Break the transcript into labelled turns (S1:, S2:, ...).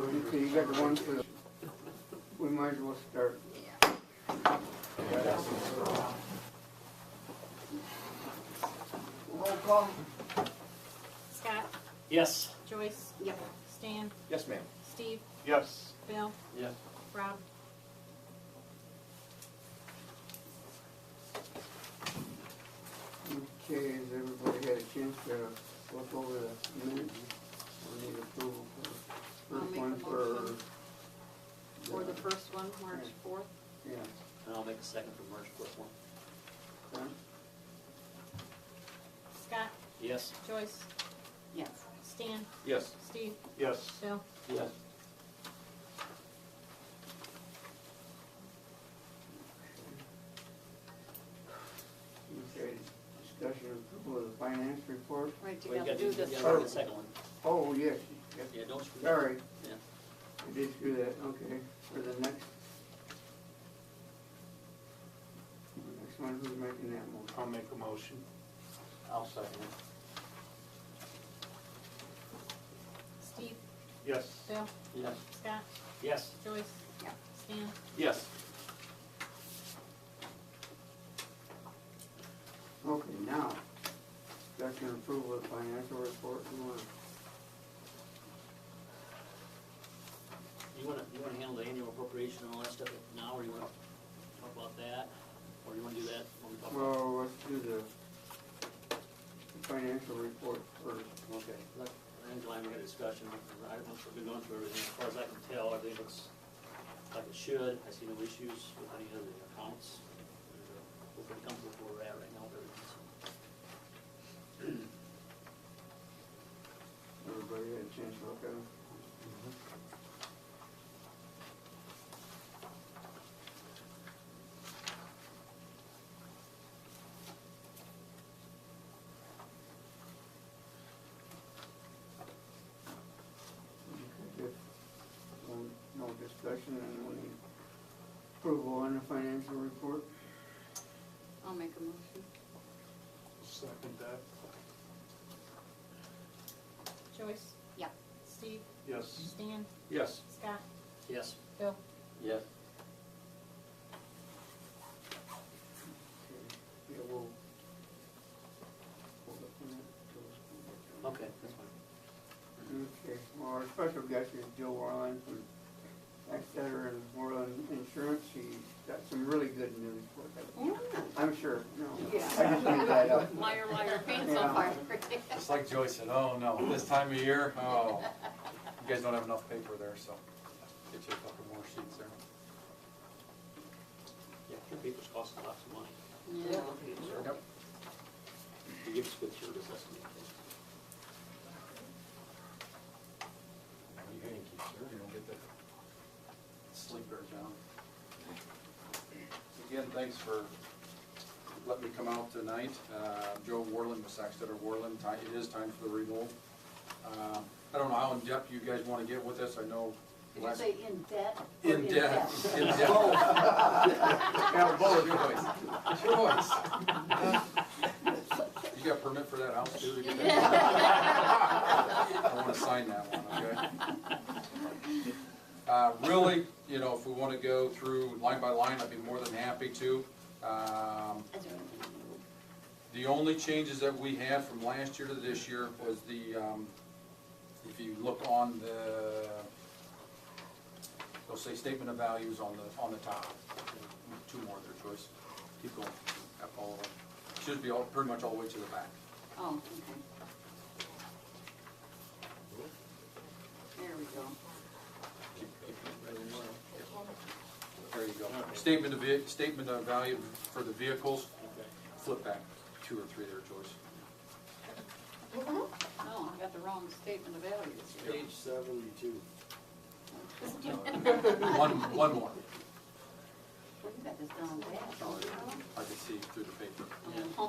S1: had the one for the, we might as well start. Roll call.
S2: Scott,
S3: Yes.
S2: Joyce. Yep. Stan,
S4: Yes, ma'am.
S2: Steve,
S4: Yes.
S2: Bill,
S3: Yes.
S2: Rob.
S1: Okay, has everybody had a chance to look over the minutes? We need approval for
S2: I'll
S1: first
S2: make
S1: one
S2: the
S1: for.
S2: motion. Or the first one, March fourth.
S1: Yeah,
S3: And I'll make a second for March fourth one.
S1: okay.
S2: Scott,
S3: Yes.
S2: Joyce. Yes. Stan,
S4: Yes.
S2: Steve,
S4: Yes.
S2: Bill,
S3: Yes.
S1: Okay, discussion of approval of the finance report.
S5: Right, you
S3: Well, you
S5: gotta do
S3: gotta, you gotta
S5: this.
S3: do the second one.
S1: Oh, yes, yes,
S3: Yeah, don't screw that.
S1: sorry.
S3: Yeah.
S1: I did screw that, okay, for the next. the Next one, who's making that motion?
S4: I'll make a motion.
S3: I'll second it.
S2: Steve,
S4: Yes.
S2: Bill,
S3: Yes.
S2: Scott,
S3: Yes.
S2: Joyce. Yep. Stan,
S4: Yes.
S1: Okay, now, discussion of approval of financial report, you wanna,
S3: You wanna, you wanna handle the annual appropriation and all that stuff now, or you wanna talk about that? Or you wanna do that when we talk about?
S1: well, let's do the the financial report first.
S3: Okay. Let, Angela and I had a discussion, right, once we've been going through everything, as far as I can tell, everything looks like it should. I see no issues with any of the accounts. And, uh, We're pretty comfortable where we're at right now, with everything, so.
S1: Everybody had a chance to look at them? If, um, no discussion and we need approval on the financial report,
S5: I'll make a motion.
S4: Second that.
S2: Joyce.
S5: Yep.
S2: Steve,
S4: Yes.
S2: Stan,
S4: Yes.
S2: Scott,
S3: Yes.
S2: Bill,
S3: Yes.
S1: yeah, we'll. hold up on that till it's completed.
S3: Okay, that's fine.
S1: Okay, well, our special guest is Joe Warland from Exeter and Warland Insurance. He's got some really good news for us. I'm sure, no.
S5: Yeah.
S1: I just made that up.
S5: Liar, liar, pants on
S1: Yeah.
S5: fire.
S6: Just like Joyce said, oh no, this time of year, oh, you guys don't have enough paper there, so get you a couple more sheets there.
S3: Yeah, your papers cost lots of money.
S5: Yeah.
S6: Yep.
S3: You give us good service, that's the main thing.
S6: You can keep sir, you don't get the sleeper, John. Again, thanks for letting me come out tonight. Uh, Joe Warland with Saxton or Warland, Ti- it is time for the renewal. Uh, I don't know how in-depth you guys want to get with this, I know.
S5: Did you
S6: last-
S5: say Oh. in debt? or
S6: In depth, in depth. Yeah, both, your voice, It's your voice. You got permit for that house too? to get that? I wanna sign that one, okay? Uh, really, you know, if we wanna go through line by line, I'd be more than happy to. Um,
S5: I don't know.
S6: the only changes that we had from last year to this year was the, um, if you look on the, they'll say statement of values on the, on the top. Two more there, Joyce. Keep going. Up all the way. Should be all, pretty much all the way to the back.
S5: Oh, okay. There we go.
S6: Keep- keep- There you go. Statement of, ve- statement of value for the vehicles,
S3: Okay.
S6: flip back two or three there, Joyce.
S5: No, I got the wrong statement of values. here.
S7: Page seventy-two.
S6: One, one more.
S5: Well, you got this down bad.
S6: Oh,
S5: don't you?
S6: I can see through the paper.
S5: Um,